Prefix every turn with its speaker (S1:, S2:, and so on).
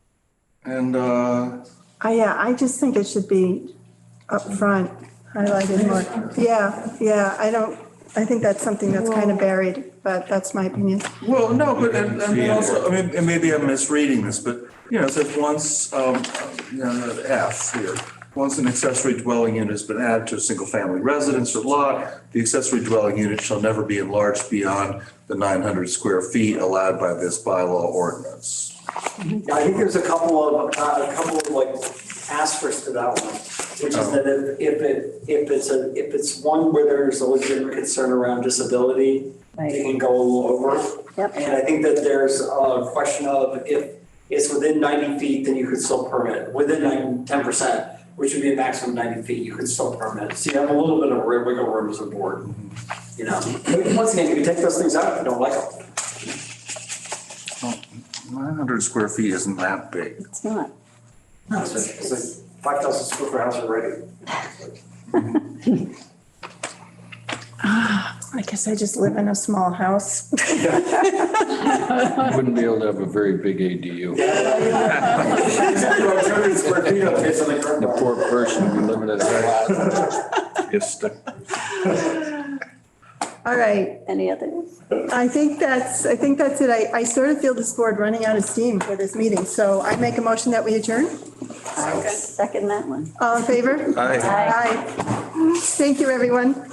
S1: And, uh,
S2: Uh, yeah, I just think it should be up front, highlighted more. Yeah, yeah, I don't, I think that's something that's kind of buried, but that's my opinion.
S1: well, no, but, and, and
S3: Yeah.
S1: then also, I mean, and maybe I'm misreading this, but, you know, it says once, um, you know, the F here. Once an accessory dwelling unit has been added to a single-family residence or lot, the accessory dwelling unit shall never be enlarged beyond the nine hundred square feet allowed by this bylaw ordinance.
S4: Yeah, I think there's a couple of, uh, a couple of like asterisks to that one, which is that if if it, if it's a, if it's one where there's a legitimate concern around disability, they can go a little over.
S5: Yep.
S4: And I think that there's a question of if it's within ninety feet, then you could still permit, within nine, ten percent, which would be a maximum of ninety feet, you could still permit. So you have a little bit of ri- wiggle room as a board, you know? But Once again, you can take those things out if you don't like them.
S1: Nine hundred square feet isn't that big.
S5: It's not.
S4: It's like- it's like five thousand square foot house already.
S2: I guess I just live in a small house.
S3: Wouldn't be able to have a very big ADU. The poor person would be living in a flat. It's the.
S2: All right,
S5: Any others?
S2: I think that's, I think that's it. I, I sort of feel this board running out of steam for this meeting, so I make a motion that we adjourn.
S5: Second that one.
S2: All in favor?
S1: Aye.
S2: Aye. Thank you, everyone.